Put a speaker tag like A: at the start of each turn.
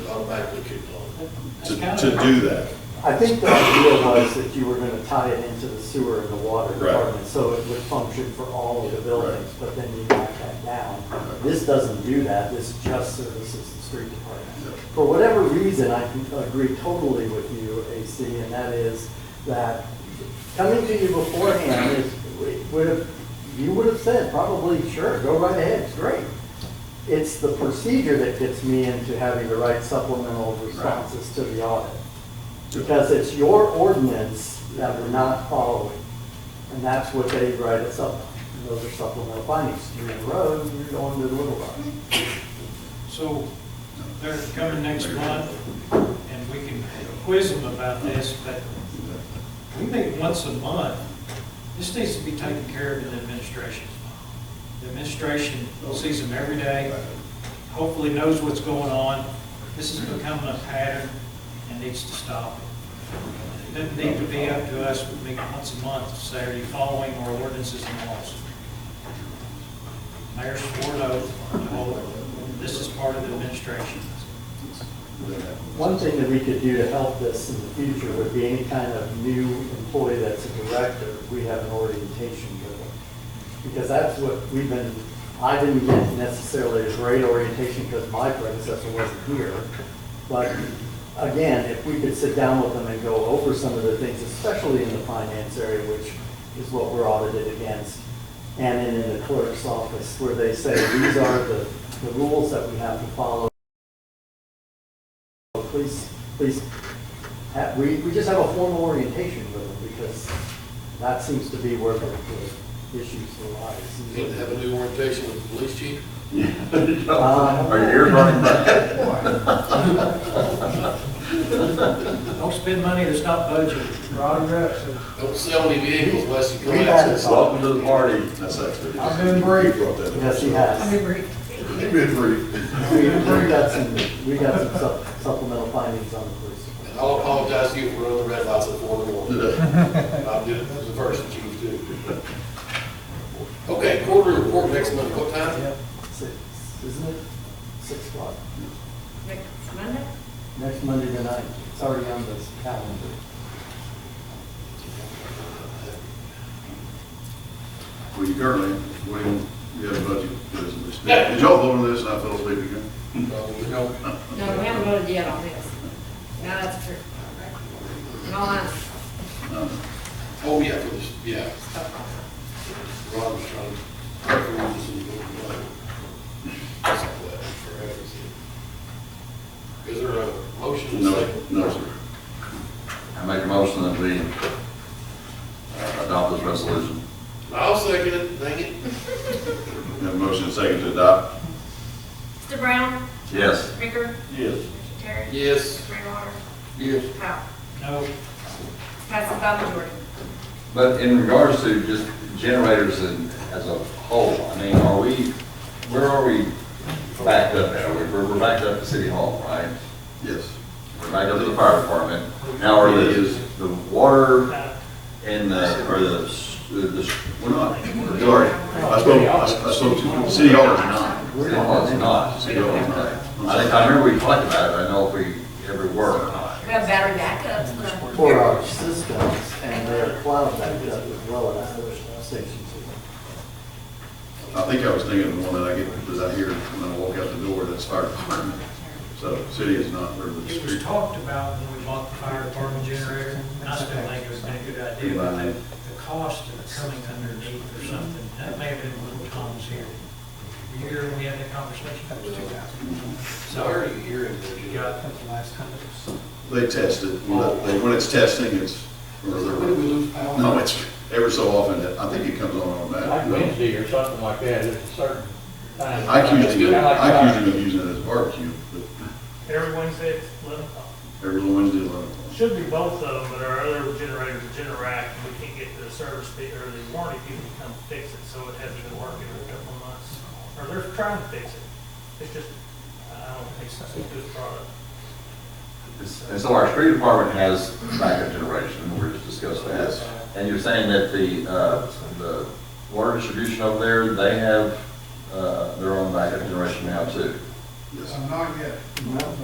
A: back to Kickapoo
B: to,
A: to,
B: to
A: to do that.
C: I think the idea was that you were gonna tie it into the sewer and the water
A: Right.
C: department, so it would function for all of the buildings,
A: Right.
C: but then you knock that down.
A: Right.
C: This doesn't do that, this just services the street
A: Yep.
C: department. For whatever reason, I can agree totally with you, AC, and that is that coming to you beforehand is, would have, you would have said probably, sure, go right ahead, it's great. It's the procedure that gets me into having to write supplemental responses to the audit. Because it's your ordinance that we're not following. And that's what they write us up. on. Those are supplemental findings. You're in the road, and you're going to the Little Rock.
B: So they're coming next month, and we can quiz them about this, but we meet once a month. This needs to be taken care of in the administration. The administration sees them every day, hopefully knows what's going on. This is becoming a pattern and needs to stop. It doesn't need to be up to us, we meet once a month, Saturday, following our ordinances and laws. Mayor swore an oath, and hold it. this is part of the administration.
C: One thing that we could do to help this in the future would be any kind of new employee that's a director, we have an orientation drill. Because that's what we've been, I didn't get necessarily a great orientation because my predecessor wasn't here. But again, if we could sit down with them and go over some of the things, especially in the finance area, which is what we're audited against, and then in the clerk's office, where they say, these are the, the rules that we have to follow Please, please, ha- we, we just have a formal orientation with them because that seems to be where the the issues
D: You need to have a
C: arise.
D: new orientation with the police chief.
C: Uh,
E: Are you running back?
B: Don't spend money that's not budgeted.
D: Don't sell any vehicles unless you come out.
C: We've had
D: and
C: it.
D: say-
E: Welcome to the party.
A: That's actually.
F: I've been briefed.
A: Brought that up.
C: Yes, he has.
A: You've been briefed.
C: We, we got some, we got some sup- supplemental findings on the police.
D: And I'll apologize to you for running the red lights at four in the morning. I did it as a first, the chief too. Okay, quarterly report next month, what time?
C: Six, isn't it? Six o'clock,
G: Next Monday?
C: next Monday the ninth. It's already on this calendar.
A: Well, you currently, William, you have a budget business. Did y'all vote on this and I fell asleep again?
D: No, we don't.
G: No, we haven't voted yet on this. No, that's true. No, I'm
D: Oh, yeah, for this, yeah. Ron was trying to. I threw this in the book, but- That's not what I forever said. Is there a motion?
A: No, no, sir.
E: I make a motion that we uh, adopt this resolution.
D: I'll second it, dang it.
A: We Have a motion and second to adopt?
G: Mr. Brown?
E: Yes.
G: Ricker?
A: Yes.
G: Mr. Terry?
D: Yes.
G: Mary Waters?
E: Yes.
G: Powell?
B: No,
G: Passes by majority.
E: But in regards to just generators and as a whole, I mean, are we, where are we backed up at? We're, we're- we're backed up to City Hall, right?
A: Yes.
E: We're backed up to the fire department. Now, are the, the water
B: uh,
E: and
A: Uh,
E: the, or the, s- the- the, s-
A: We're not. Sorry. I spoke, I I spoke to, City Hall is not.
E: City Hall is not.
A: City Hall is not.
E: I think, I remember we talked about it, I know if we ever were or not.
G: We have battery backups, but
C: For our systems and their cloud backup as well as their stations.
A: I think I was thinking of the one that I get, that I hear when I walk out the door, that's fire department. So city is not where the
B: it was
A: street.
B: talked about when we bought the fire department generator, and I still think it was a good idea, but the the cost of coming underneath or something, that may have been little Tom's here. Were you here when we had that conversation? That was two thousand.
D: So where are you hearing this?
B: You got,
A: They test it. When that- they- when it's testing, it's, or
D: When
A: they're-
D: do we lose power?
A: no, it's every so often, that- I think it comes on on
H: Like
A: that.
H: Wednesday or something like that, it's a certain time.
A: I accused him,
H: Kinda like
A: I
H: fire.
A: accused him of using it as barbecue, but
I: Every Wednesday at eleven o'clock.
A: every Wednesday, eleven o'clock.
I: Should be both of them, but our other generators, Generac, we can't get the service fee or the warranty people to come fix it, so it hasn't been working in a couple of months. Or they're trying to fix it. It's just, I don't think it's a good product.
E: And so our street department has backup generation, we just discussed that. And you're saying that the, uh, the water distribution over there, they have, uh, their own backup generation now too?
A: Yes.
C: No.